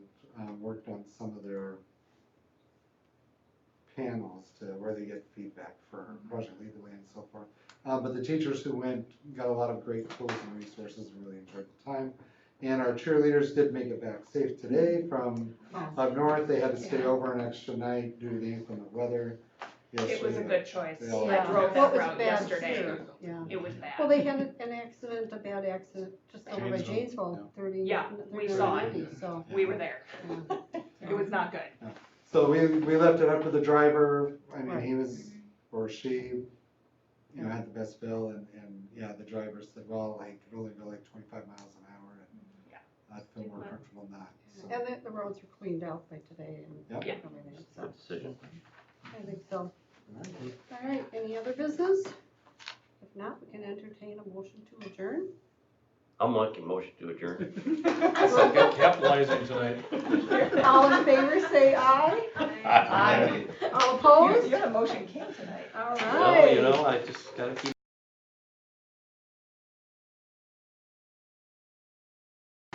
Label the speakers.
Speaker 1: um, worked on some of their panels to where they get feedback for
Speaker 2: Mm-hmm.
Speaker 1: Project Lead the Way and so forth. Uh, but the teachers who went got a lot of great tools and resources, and really enjoyed the time. And our cheerleaders did make it back safe today from up north. They had to stay
Speaker 3: Yeah.
Speaker 1: over an extra night due to the inclement weather.
Speaker 2: It was a
Speaker 1: yesterday.
Speaker 2: good choice.
Speaker 1: Yeah.
Speaker 2: I drove
Speaker 4: Well, it
Speaker 2: that
Speaker 4: was
Speaker 2: route
Speaker 4: bad
Speaker 2: yesterday.
Speaker 4: too. Yeah.
Speaker 2: It was
Speaker 4: Well,
Speaker 2: bad.
Speaker 4: they had an- an accident, a bad accident, just over by
Speaker 1: Janesville, yeah.
Speaker 4: Janesville, thirty.
Speaker 2: Yeah, we saw it.
Speaker 4: 30, So.
Speaker 2: We were there.
Speaker 4: yeah.
Speaker 2: It was not good.
Speaker 1: So we, we left it up to the driver, I mean, he
Speaker 4: Right.
Speaker 1: was, or she, you know, had the best bill, and, and, yeah, the driver said, well, I could only go like twenty-five miles an hour, and
Speaker 2: Yeah.
Speaker 1: I'd feel more comfortable not, so.
Speaker 4: And the, the roads were cleaned out by today and
Speaker 1: Yep.
Speaker 2: Yeah.
Speaker 4: everything, so,
Speaker 5: Good decision.
Speaker 4: I think so.
Speaker 1: All right.
Speaker 4: All right, any other business? If not, we can entertain a motion to adjourn.
Speaker 5: I'm making motion to adjourn.
Speaker 6: Capitalizing tonight.
Speaker 4: All in favor, say aye.
Speaker 5: Aye.
Speaker 4: All
Speaker 2: You-
Speaker 4: opposed?
Speaker 2: You had a motion king tonight.
Speaker 4: All right.
Speaker 5: Well, you know, I just gotta keep